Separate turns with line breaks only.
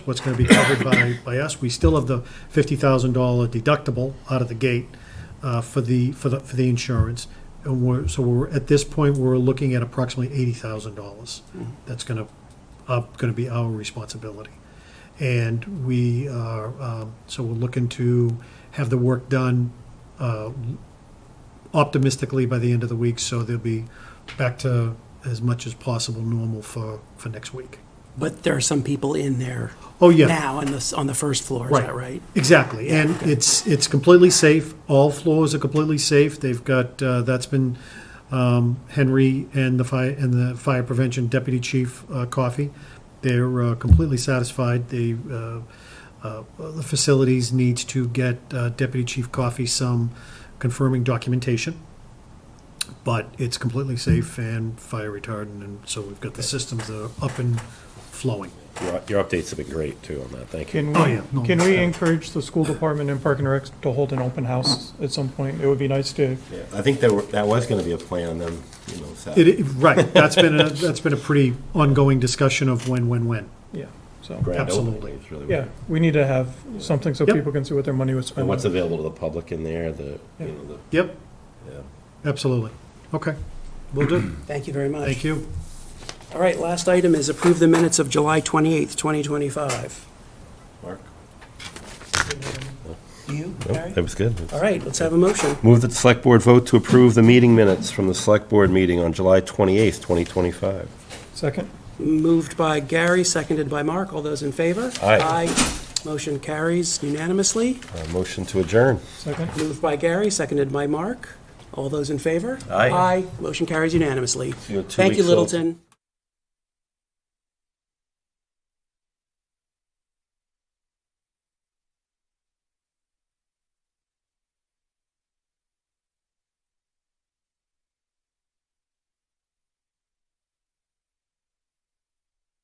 what's going to be covered by, by us. We still have the fifty thousand dollar deductible out of the gate uh, for the, for the, for the insurance. And we're, so we're, at this point, we're looking at approximately eighty thousand dollars. That's going to, uh, going to be our responsibility. And we are, um, so we're looking to have the work done uh, optimistically by the end of the week, so they'll be back to as much as possible normal for, for next week.
But there are some people in there
Oh, yeah.
now on the, s- on the first floor, is that right?
Exactly, and it's it's completely safe. All floors are completely safe. They've got uh, that's been um, Henry and the fire and the fire prevention deputy chief uh, coffee. They're uh, completely satisfied. They uh, uh, the facilities needs to get uh, deputy chief coffee some confirming documentation, but it's completely safe and fire retardant, and so we've got the systems that are up and flowing.
Your, your updates have been great too on that, thank you.
Can
Oh, yeah. No,
we, can we
it's-
encourage the school department and Park and Rec to hold an open house
Uh-huh.
at some point? It would be nice to,
Yeah, I think there were, that was gonna be a plan on them, you know, so.
It, it- right, that's been, a that's been a pretty ongoing discussion of when, when, when.
yeah, so,
grand opening
absolutely.
is really
yeah,
what-
we need to have something so
Yep.
people can see what their money was spent
And
on.
what's available to the public in there, the, you know, the,
Yep,
yeah.
absolutely. Okay, we will do.
Thank you very much.
Thank you.
All right, last item is approve the minutes of July 28th, 2025.
Mark?
You, Barry?
Nope, That was good.
All right, let's have a motion.
Move that the select board vote to approve the meeting minutes from the select board meeting on July twenty-eighth, twenty twenty-five.
Second,
Moved by Gary, seconded by Mark. All those in favor?
Aye.
Motion carries unanimously.
Uh, motion to adjourn.
second.
Moved by Gary, seconded by Mark. All those in favor?
Aye.
Aye. Motion carries unanimously.
you in two
Thank you,
weeks, Phil.
Littleton.